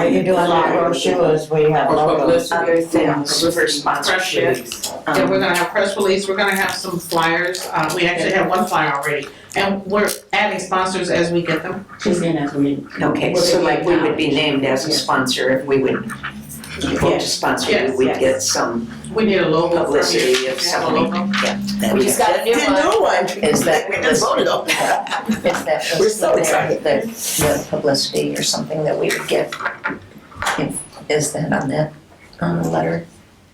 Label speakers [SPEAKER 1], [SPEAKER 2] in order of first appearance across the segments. [SPEAKER 1] What you do on that brochure is we have
[SPEAKER 2] Or
[SPEAKER 1] logos.
[SPEAKER 2] publicity.
[SPEAKER 3] Other things
[SPEAKER 2] Publicity,
[SPEAKER 3] for
[SPEAKER 2] press release.
[SPEAKER 3] sponsorships.
[SPEAKER 2] Yeah, we're gonna have press release, we're gonna have some flyers, uh, we actually have one flyer already, and we're adding sponsors as we get them.
[SPEAKER 4] She's in as we.
[SPEAKER 3] Okay, so like we would be named as a sponsor if we would, vote to sponsor you, we'd get some
[SPEAKER 2] We need a logo. from you.
[SPEAKER 3] publicity of
[SPEAKER 2] We have a
[SPEAKER 3] something.
[SPEAKER 2] logo.
[SPEAKER 3] that
[SPEAKER 5] We
[SPEAKER 3] we
[SPEAKER 5] just got a new
[SPEAKER 6] The
[SPEAKER 5] one.
[SPEAKER 6] new one.
[SPEAKER 5] Is that-
[SPEAKER 6] We just voted on.
[SPEAKER 5] It's that.
[SPEAKER 6] We're so excited.
[SPEAKER 5] The, the publicity or something that we would get. If- Is that on that, on the letter?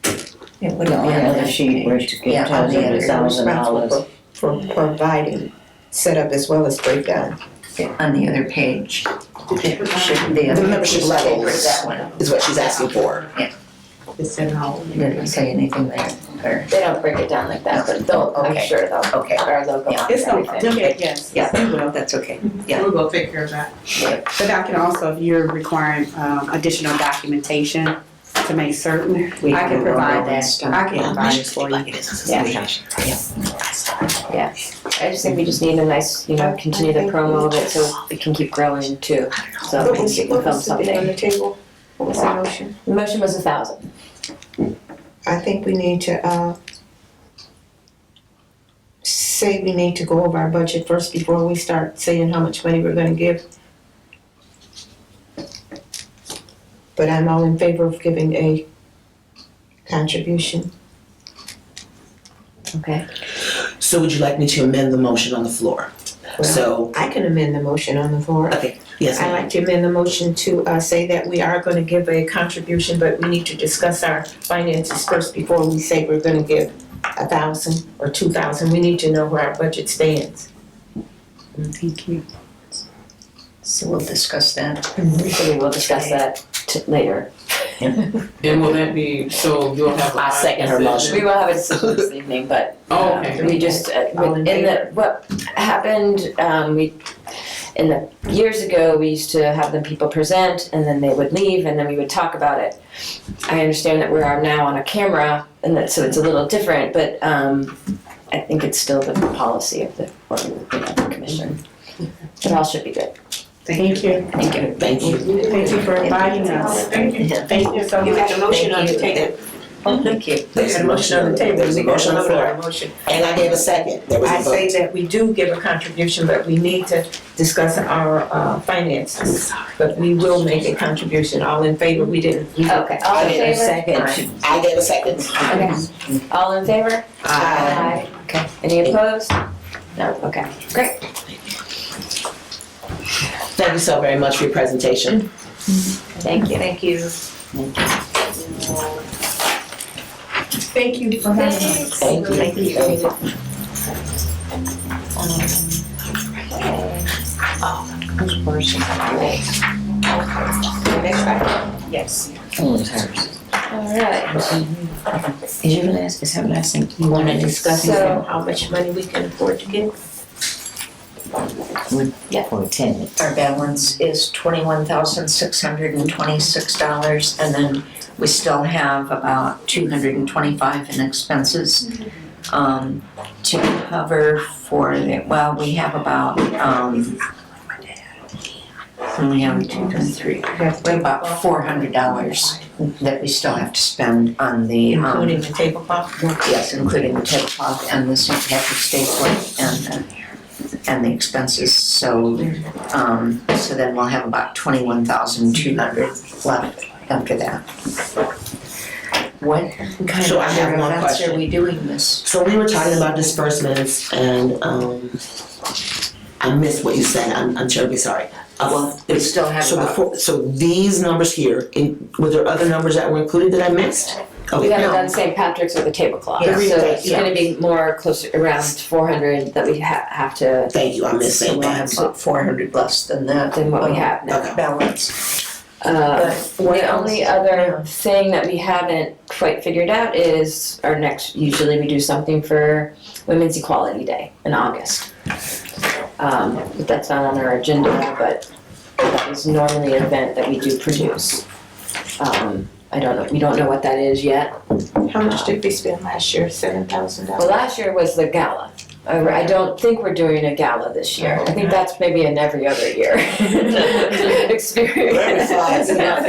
[SPEAKER 5] It wouldn't be
[SPEAKER 1] No,
[SPEAKER 5] on
[SPEAKER 1] on the
[SPEAKER 5] that
[SPEAKER 1] other sheet
[SPEAKER 5] page.
[SPEAKER 1] where it
[SPEAKER 5] Yeah, on
[SPEAKER 1] tells
[SPEAKER 5] the
[SPEAKER 1] you
[SPEAKER 5] other-
[SPEAKER 1] the thousand dollars.
[SPEAKER 6] For providing setup as well as breakdown
[SPEAKER 5] On the other page. It should be.
[SPEAKER 6] The membership levels.
[SPEAKER 5] That one.
[SPEAKER 6] is what she's asking for.
[SPEAKER 2] It's in our.
[SPEAKER 5] Didn't say anything there, or,
[SPEAKER 7] They don't break it down like that, but they'll, I'm
[SPEAKER 5] Okay.
[SPEAKER 7] sure they'll,
[SPEAKER 5] okay,
[SPEAKER 7] our logo on
[SPEAKER 8] It's no,
[SPEAKER 7] everything.
[SPEAKER 8] they'll get, yes, yes, they will.
[SPEAKER 5] that's okay. Yeah.
[SPEAKER 2] We'll go take care of that.
[SPEAKER 8] But I can also, if you're requiring um, additional documentation to make certain,
[SPEAKER 6] We
[SPEAKER 8] I can
[SPEAKER 6] can go
[SPEAKER 8] provide
[SPEAKER 6] around and
[SPEAKER 8] that.
[SPEAKER 6] stuff.
[SPEAKER 8] I can
[SPEAKER 6] Yeah.
[SPEAKER 8] provide it for you.
[SPEAKER 7] Yeah, I just think we just need a nice, you know, continue the promo of it so it can keep growing too. So at least it can become something.
[SPEAKER 6] the table? What was the motion?
[SPEAKER 7] The motion was a thousand.
[SPEAKER 6] I think we need to, uh, say we need to go over our budget first before we start saying how much money we're gonna give. But I'm all in favor of giving a contribution.
[SPEAKER 7] Okay.
[SPEAKER 9] So would you like me to amend the motion on the floor? So,
[SPEAKER 6] I can amend the motion on the floor.
[SPEAKER 9] yes,
[SPEAKER 6] I'd
[SPEAKER 9] ma'am.
[SPEAKER 6] like to amend the motion to uh, say that we are gonna give a contribution, but we need to discuss our finances first before we say we're gonna give a thousand or two thousand. We need to know where our budget stands.
[SPEAKER 8] Thank you.
[SPEAKER 5] So we'll discuss that.
[SPEAKER 7] So we will discuss that t- later.
[SPEAKER 2] And will that be, so you'll have a.
[SPEAKER 7] I second her motion. We will have a decision this evening, but
[SPEAKER 2] Oh, okay.
[SPEAKER 7] We just, uh,
[SPEAKER 6] All in
[SPEAKER 7] in the, what happened, um, we, in the, years ago, we used to have the people present and then they would leave and then we would talk about it. I understand that we are now on a camera and that, so it's a little different, but, um, I think it's still the policy of the, or, you know, the commission. It all should be good.
[SPEAKER 8] Thank you.
[SPEAKER 7] Thank you.
[SPEAKER 9] Thank you.
[SPEAKER 8] Thank you for inviting us.
[SPEAKER 2] Thank you.
[SPEAKER 8] Thank you so much.
[SPEAKER 6] a motion on the table.
[SPEAKER 5] Oh, thank you.
[SPEAKER 9] There's a motion on the table. There's a motion on the floor. And I gave a second. There was
[SPEAKER 6] I
[SPEAKER 9] a
[SPEAKER 6] say
[SPEAKER 9] vote.
[SPEAKER 6] that we do give a contribution, but we need to discuss our uh, finances. But we will make a contribution. All in favor? We didn't.
[SPEAKER 9] Oh,
[SPEAKER 7] Okay, all in
[SPEAKER 9] I
[SPEAKER 7] favor?
[SPEAKER 9] Second. I gave a second. Uh,
[SPEAKER 7] Okay. All in favor? Aye. Okay, any opposed? No, okay, great.
[SPEAKER 9] Thank you so very much for your presentation.
[SPEAKER 7] Thank you. Thank you.
[SPEAKER 3] Thank you for having us.
[SPEAKER 9] Thank you.
[SPEAKER 3] Thank you.
[SPEAKER 5] Yes. Oh, it's hers.
[SPEAKER 7] All right.
[SPEAKER 5] Is your last, is her last name, you wanna discuss it?
[SPEAKER 7] So-
[SPEAKER 6] How much money we can afford to give?
[SPEAKER 5] Or ten. Our balance is twenty-one thousand six hundred and twenty-six dollars, and then we still have about two hundred and twenty-five in expenses. Um, to cover for, the- well, we have about, um, we have two, three, we have about four hundred dollars that we still have to spend on the, um.
[SPEAKER 6] Including the tablecloth?
[SPEAKER 5] Yes, including the tablecloth and the St. Patrick's State work and the, and the expenses, so, um, so then we'll have about twenty-one thousand two hundred left after that. What kind
[SPEAKER 9] So
[SPEAKER 5] of
[SPEAKER 9] I have
[SPEAKER 5] other
[SPEAKER 9] one
[SPEAKER 5] events are
[SPEAKER 9] question.
[SPEAKER 5] we doing this?
[SPEAKER 9] So we were talking about disbursements and, um, I missed what you said. I'm, I'm terribly sorry. Uh, well,
[SPEAKER 5] We still have
[SPEAKER 9] So the
[SPEAKER 5] about,
[SPEAKER 9] four, so these numbers here, in, were there other numbers that were included that I missed?
[SPEAKER 7] We
[SPEAKER 9] Okay,
[SPEAKER 7] haven't done St. Patrick's or the tablecloth, so
[SPEAKER 9] Yeah.
[SPEAKER 7] it's
[SPEAKER 9] Yeah.
[SPEAKER 7] gonna be more closer, around four hundred that we ha- have to,
[SPEAKER 9] thank you. I missed
[SPEAKER 5] so
[SPEAKER 9] St.
[SPEAKER 5] we have
[SPEAKER 9] Pat's.
[SPEAKER 5] about four hundred less than that.
[SPEAKER 7] than what we
[SPEAKER 3] Uh-huh.
[SPEAKER 7] have now.
[SPEAKER 9] Okay.
[SPEAKER 5] Balance.
[SPEAKER 7] Uh,
[SPEAKER 5] what
[SPEAKER 7] The
[SPEAKER 5] else?
[SPEAKER 7] only other thing that we haven't quite figured out is our next, usually we do something for Women's Equality Day in August. Um, but that's not on our agenda, but that is normally an event that we do produce. Um, I don't know, we don't know what that is yet,
[SPEAKER 6] How much did we spend last year? Seven thousand dollars?
[SPEAKER 7] Well, last year was the gala. I I don't think we're doing a gala this year. I think that's maybe an every other year experience.
[SPEAKER 9] Very fun.
[SPEAKER 7] Yeah.